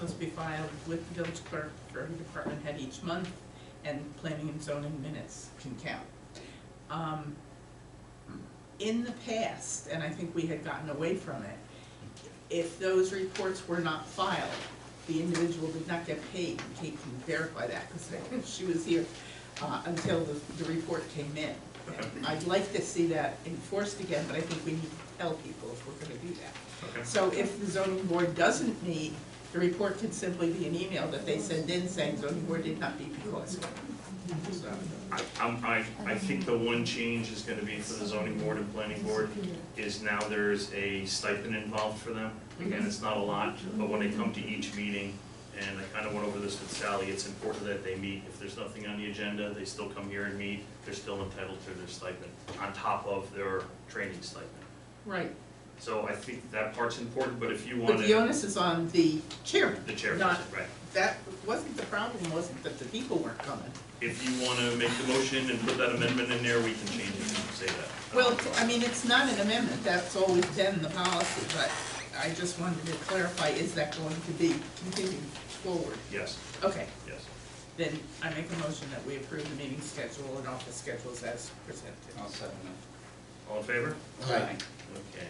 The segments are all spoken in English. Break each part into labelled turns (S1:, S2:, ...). S1: must be filed with the village clerk for every department head each month, and planning and zoning minutes can count. Um, In the past, and I think we had gotten away from it, if those reports were not filed, the individual did not get paid, and Kate can verify that, because she was here, uh, until the, the report came in. And I'd like to see that enforced again, but I think we need to tell people if we're gonna do that.
S2: Okay,
S1: So if the zoning board doesn't meet, the report could simply be an email that they send in saying zoning board did not meet because. So,
S2: I, I'm, I, I think the one change is gonna be for the zoning board and planning board, is now there's a stipend involved for them. Again, it's not a lot, but when they come to each meeting, and I kinda went over this with Sally, it's important that they meet. If there's nothing on the agenda, they still come here and meet, they're still entitled to their stipend, on top of their training stipend.
S1: Right,
S2: So I think that part's important, but if you
S1: but the
S2: wanted,
S1: onus is on the chairman.
S2: the chairperson,
S1: Not-
S2: right.
S1: That wasn't the problem, wasn't that the people weren't coming.
S2: If you wanna make the motion and put that amendment in there, we can change it and say that.
S1: Well, I mean, it's not an amendment, that's always been the policy, but I just wanted to clarify, is that going to be continued forward?
S2: Yes,
S1: Okay,
S2: yes.
S1: then I make a motion that we approve the meeting schedule and office schedules as presented.
S3: I'll second
S2: All in favor?
S3: that. Aye.
S2: Okay.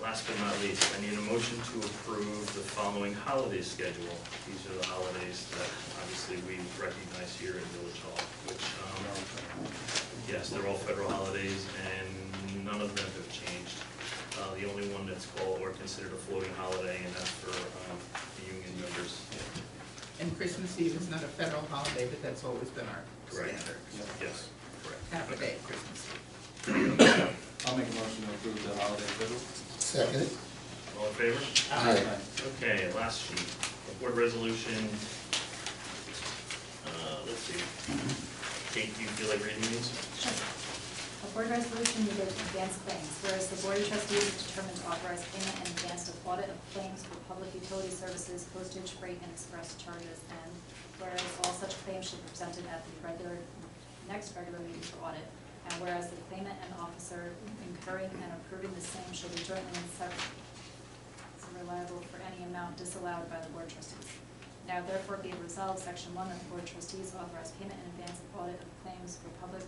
S2: Last but not least, I need a motion to approve the following holiday schedule. These are the holidays that obviously we recognize here in Village Hall, which, um, yes, they're all federal holidays and none of them have changed. Uh, the only one that's called or considered a floating holiday and that's for, um, the union members.
S1: And Christmas Eve is not a federal holiday, but that's always been our
S2: Correct.
S1: standard,
S2: Yes, correct.
S1: half a day at Christmas Eve.
S3: I'll make a motion to approve the holiday schedule.
S4: Second?
S2: All in favor?
S4: Aye.
S2: Okay, last sheet, board resolution. Uh, let's see. Kate, do you feel like reading these?
S5: Sure. A board resolution needed to advance claims, whereas the board of trustees is determined to authorize payment in advance of audit of claims for public utility services, postage, freight, and express charges, and whereas all such claims should be presented at the regular, next regular meeting for audit, and whereas the claimant and officer incurring and approving the same shall be jointly and separately reliable for any amount disallowed by the board trustees. Now therefore be it resolved, section one, that the board trustees authorize payment in advance of audit of claims for public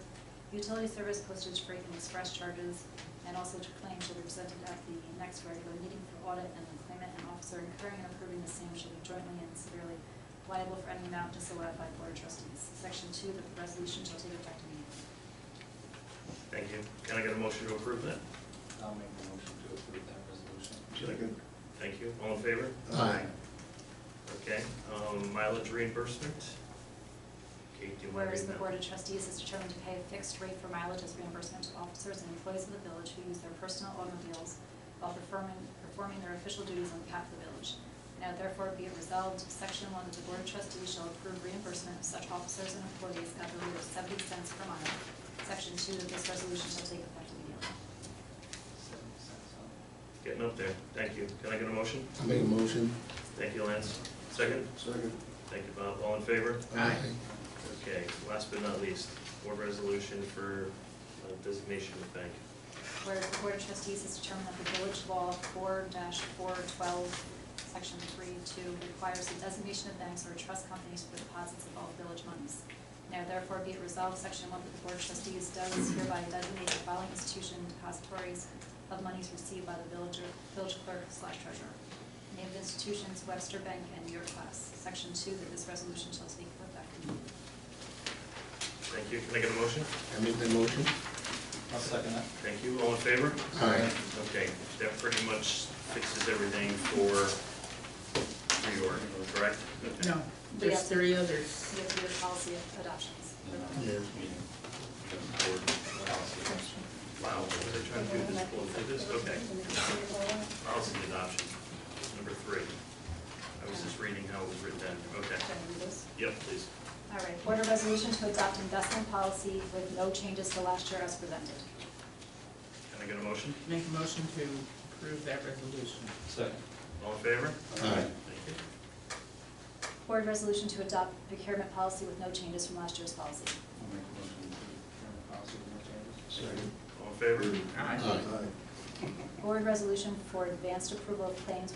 S5: utility service, postage, freight, and express charges, and also to claim shall be presented at the next regular meeting for audit, and the claimant and officer incurring and approving the same shall be jointly and severally liable for any amount disallowed by the board trustees. Section two, that the resolution shall take effect immediately.
S2: Thank you. Can I get a motion to approve that?
S3: I'll make a motion to approve that resolution.
S4: Second?
S2: Thank you. All in favor?
S4: Aye.
S2: Okay, um, mileage reimbursement. Kate, do you want to read that?
S5: Whereas the Board of Trustees is determined to pay a fixed rate for mileage as reimbursement to officers and employees of the village who use their personal automobiles while performing, performing their official duties on behalf of the village. Now therefore be it resolved, section one, that the Board of Trustees shall approve reimbursement of such officers and employees at the rate of seventy cents per mile. Section two, that this resolution shall take effect immediately.
S3: Seventy cents, huh?
S2: Getting up there. Thank you. Can I get a motion?
S4: I make a motion?
S2: Thank you, Lance. Second?
S4: Second.
S2: Thank you, Bob. All in favor?
S4: Aye.
S2: Okay, last but not least, board resolution for uh, designation of bank.
S5: Whereas the Board of Trustees has determined that the village law four four twelve, section three two, requires the designation of banks or trust companies for deposits of all village monies. Now therefore be it resolved, section one, that the Board of Trustees does hereby designate the following institution depositories of monies received by the villager, village clerk slash treasurer. Named institutions Webster Bank and New York Class. Section two, that this resolution shall take effect immediately.
S2: Thank you. Can I get a motion?
S4: I make the motion?
S3: I'll second that.
S2: Thank you. All in favor?
S4: Aye.
S2: Okay, that pretty much fixes everything for reorg, correct? Okay.
S1: No, there's
S5: Yes.
S1: three others.
S5: We have to do a policy of adoptions.
S4: Yeah.
S2: Wow, they're trying to do this, blow through this, okay. Policy adoption, number three. I was just reading how it was written down, okay.
S5: Should I read those?
S2: Yep, please.
S5: All right, board of resolution to adopt investment policy with no changes to last year as presented.
S2: Can I get a motion?
S1: Make a motion to approve that resolution.
S3: Second.
S2: All in favor?
S4: Aye.
S2: Thank you.
S5: Board resolution to adopt procurement policy with no changes from last year's policy.
S3: I'll make a motion to approve the policy with no changes.
S2: All in favor?
S4: Aye.
S5: Board resolution for advanced approval of claims